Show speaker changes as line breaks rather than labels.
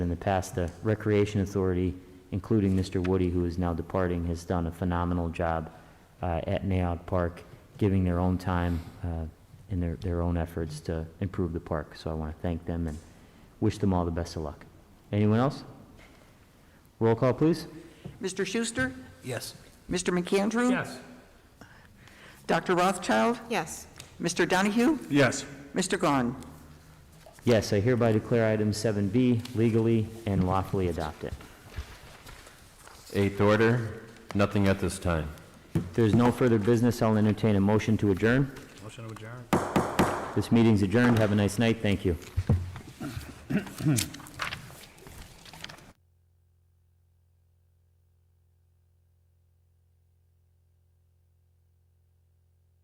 the past, the Recreation Authority, including Mr. Woody, who is now departing, has done a phenomenal job uh, at Nayout Park, giving their own time uh, and their, their own efforts to improve the park. So I want to thank them and wish them all the best of luck. Anyone else? Roll call, please.
Mr. Schuster?
Yes.
Mr. McAndrew?
Yes.
Dr. Rothschild?
Yes.
Mr. Donahue?
Yes.
Mr. Gahn?
Yes, I hereby declare item 7B legally and lawfully adopted.
Eighth order, nothing at this time.
If there's no further business, I'll entertain a motion to adjourn.
Motion to adjourn.
This meeting's adjourned. Have a nice night. Thank you.